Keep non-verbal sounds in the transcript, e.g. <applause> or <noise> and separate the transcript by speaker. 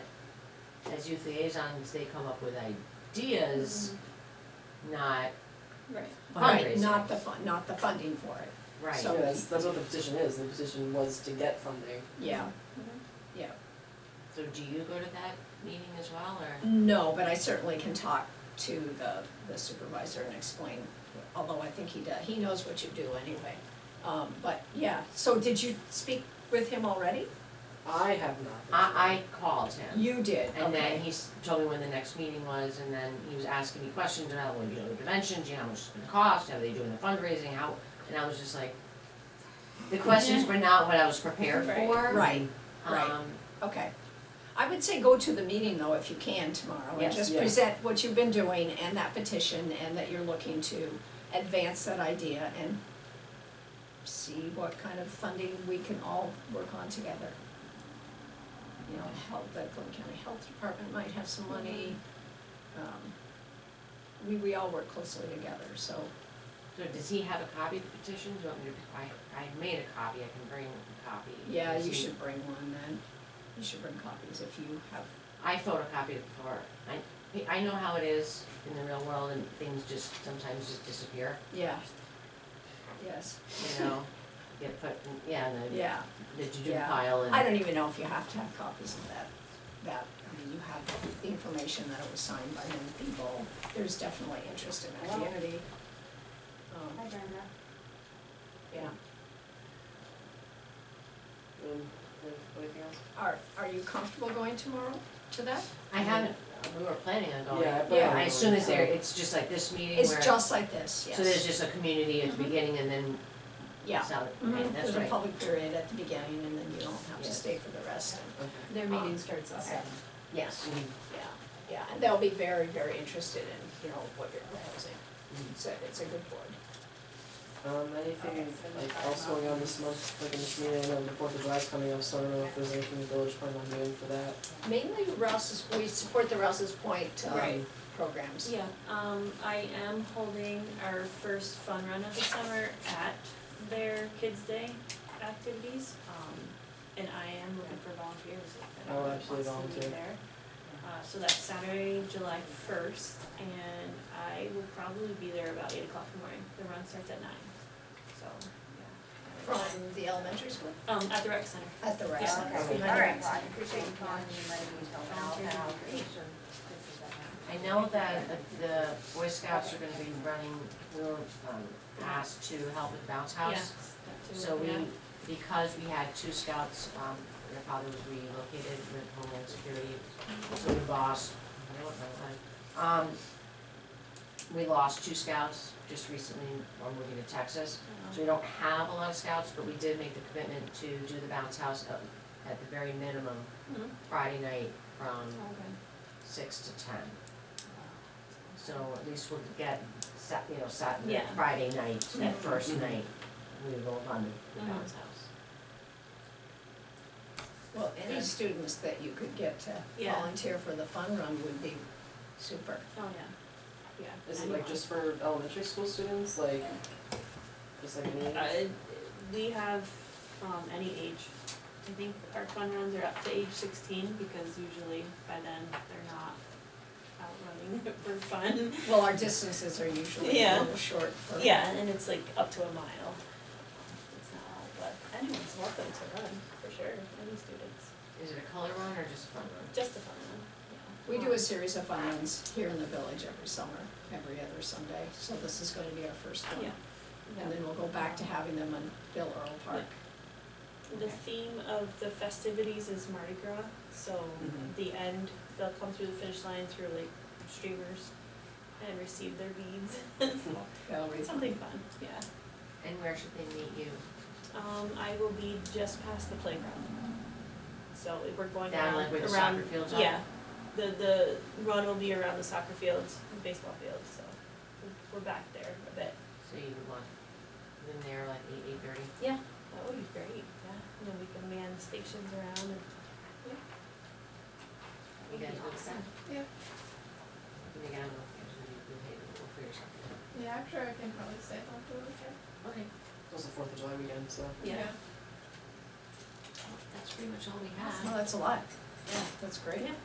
Speaker 1: as youth liaisons, they come up with ideas, not
Speaker 2: Right,
Speaker 3: Right,
Speaker 1: fundraising.
Speaker 3: not the fun, not the funding for it,
Speaker 1: Right,
Speaker 3: So-
Speaker 4: Yeah, that's, that's what the petition is, the petition was to get funding.
Speaker 3: yeah.
Speaker 1: Mm-hmm. so do you go to that meeting as well, or?
Speaker 3: No, but I certainly can talk to the, the supervisor and explain, although I think he does, he knows what you do anyway. Um, but yeah, so did you speak with him already?
Speaker 4: I have not.
Speaker 1: I, I called him,
Speaker 3: You did,
Speaker 1: and then
Speaker 3: okay.
Speaker 1: he s- told me when the next meeting was, and then he was asking me questions about, well, you know, the convention, do you know, how much it's gonna cost, how are they doing the fundraising, how, and I was just like, the questions were not what I was prepared for.
Speaker 2: Right,
Speaker 3: Right, right.
Speaker 1: Um,
Speaker 3: okay. I would say go to the meeting though, if you can tomorrow, and
Speaker 1: Yes.
Speaker 3: just
Speaker 4: Yeah.
Speaker 3: present what you've been doing and that petition and that you're looking to advance that idea and see what kind of funding we can all work on together. You know, help, the Clinton County Health Department might have some money. Um, We, we all work closely together, so,
Speaker 1: so does he have a copy of the petition, do you want me to, I, I made a copy, I can bring a copy.
Speaker 3: yeah,
Speaker 1: Does
Speaker 3: you
Speaker 1: he-
Speaker 3: should bring one then. You should bring copies if you have
Speaker 1: I photocopied it before. I, I know how it is in the real world and things just sometimes just disappear,
Speaker 3: Yeah. Yes,
Speaker 1: you
Speaker 3: <laughs>
Speaker 1: know? Get put, in- yeah, in the,
Speaker 3: yeah.
Speaker 1: the to-do
Speaker 3: Yeah.
Speaker 1: pile and.
Speaker 3: I don't even know if you have to have copies of that, that, I mean, you have the information that it was signed by many people. There's definitely interest in that community. Um,
Speaker 2: I remember.
Speaker 3: yeah.
Speaker 4: Um, anything else?
Speaker 3: Are, are you comfortable going tomorrow to that?
Speaker 1: I haven't, we were planning on going.
Speaker 4: Yeah, I plan
Speaker 3: Yeah.
Speaker 4: on
Speaker 1: I- As soon as
Speaker 4: going.
Speaker 1: there, it's just like this meeting where.
Speaker 3: It's just like this, yes. Mm-hmm.
Speaker 1: So there's just a community at the
Speaker 2: Mhm.
Speaker 1: beginning and then
Speaker 3: Yeah.
Speaker 1: solid,
Speaker 3: Mhm.
Speaker 1: right, that's
Speaker 3: There's a
Speaker 1: right.
Speaker 3: public period at the beginning and then you don't have to
Speaker 1: Yes.
Speaker 3: stay for the rest.
Speaker 4: Okay.
Speaker 2: Their meeting starts at
Speaker 3: okay.
Speaker 2: seven.
Speaker 1: Yes,
Speaker 3: Yeah, yeah, and they'll be very, very interested in, you know, what you're proposing.
Speaker 1: Mm-hmm.
Speaker 4: Mhm.
Speaker 3: So it's a good board.
Speaker 4: Um, anything like else going on this month, like in this meeting, I know the Fourth of July's coming up, so I don't know if there's anything the village plan on doing for that.
Speaker 3: Mainly Rouse's, we support the Rouse's Point um,
Speaker 4: Right.
Speaker 3: programs.
Speaker 2: Yeah, um, I am holding our first fun run of the summer at their Kids Day activities. Um, and I am looking for volunteers if
Speaker 4: I will
Speaker 2: anyone wants to
Speaker 4: absolutely
Speaker 2: be there.
Speaker 4: volunteer.
Speaker 2: Uh, so that's Saturday, July first, and I will probably be there about eight o'clock in the morning. The run starts at nine, so,
Speaker 3: From the elementary school?
Speaker 2: yeah. Um, at the rec center.
Speaker 3: At the rec
Speaker 2: Yeah.
Speaker 3: center.
Speaker 4: Okay.
Speaker 3: behind the
Speaker 5: All
Speaker 3: rec
Speaker 5: right, well, I
Speaker 3: center.
Speaker 5: appreciate you calling me, and letting me know, and I'll have information. This is a-
Speaker 1: I know that the- the Boy Scouts are gonna be running, we were, um, asked to help with bounce house.
Speaker 2: Yeah,
Speaker 1: So we,
Speaker 2: yeah.
Speaker 1: because we had two scouts, um, their father was relocated with Homeland Security,
Speaker 2: Mm-hmm.
Speaker 1: so we lost, I don't know, like, um, we lost two scouts just recently, one moving to Texas.
Speaker 2: Mm-hmm.
Speaker 1: So we don't have a lot of scouts, but we did make the commitment to do the bounce house at, at the very minimum,
Speaker 2: Mhm.
Speaker 1: Friday night from
Speaker 2: Oh, Okay.
Speaker 1: six to ten. So at least we'll get, Sat, you know, Sat,
Speaker 2: Yeah. Mm-hmm.
Speaker 1: Friday night, that first
Speaker 4: Mhm.
Speaker 1: night, we will fund the
Speaker 2: Mhm.
Speaker 1: bounce house.
Speaker 3: Well, any students that you could get to
Speaker 2: Yeah.
Speaker 3: volunteer for the fun run would be super.
Speaker 2: Oh, yeah, yeah.
Speaker 4: Is it like just for elementary school students, like, just like me?
Speaker 2: Uh, we have, um, any age, I think our fun runs are up to age sixteen, because usually by then they're not out running <laughs> for fun.
Speaker 3: Well, our distances are usually a
Speaker 2: Yeah.
Speaker 3: little short for.
Speaker 2: Yeah, and it's like up to a mile. It's not all, but anyone's welcome to run, for sure, any students,
Speaker 1: Is it a color run or just a fun run?
Speaker 2: just a fun run,
Speaker 3: We do a series of fun runs here in the village every summer, every other Sunday, so this is gonna be our first
Speaker 2: yeah.
Speaker 3: one.
Speaker 2: Yeah.
Speaker 3: And then we'll go back to having them on Bill Earl Park.
Speaker 2: The theme of the festivities is Mardi Gras, so
Speaker 4: Mhm.
Speaker 1: Mm-hmm.
Speaker 2: the end, they'll come through the finish line through like streamers and receive their beads. <laughs>
Speaker 3: They'll re-
Speaker 2: It's Something fun, yeah.
Speaker 1: And where should they meet you?
Speaker 2: Um, I will be just past the playground. So if we're going
Speaker 1: Down
Speaker 2: around,
Speaker 1: like where the
Speaker 2: around-
Speaker 1: soccer fields are?
Speaker 2: Yeah, the, the run will be around the soccer fields, and baseball fields, so we're back there a bit.
Speaker 1: So you would want them there like eight, eight thirty?
Speaker 2: Yeah.
Speaker 1: Oh,
Speaker 2: That would be great, yeah, and then we can man the stations around and, yeah.
Speaker 1: You
Speaker 2: That'd
Speaker 1: guys
Speaker 2: be
Speaker 1: look
Speaker 2: awesome.
Speaker 1: back.
Speaker 6: Yeah.
Speaker 1: Let me get on the, we'll, we'll figure something out.
Speaker 6: Yeah, I'm sure I can probably stay home for the weekend.
Speaker 1: Okay.
Speaker 4: It was the Fourth of July weekend, so.
Speaker 2: Yeah.
Speaker 1: That's pretty much all we
Speaker 3: Oh,
Speaker 1: have.
Speaker 3: that's a lot. Yeah, that's great.
Speaker 2: Yeah.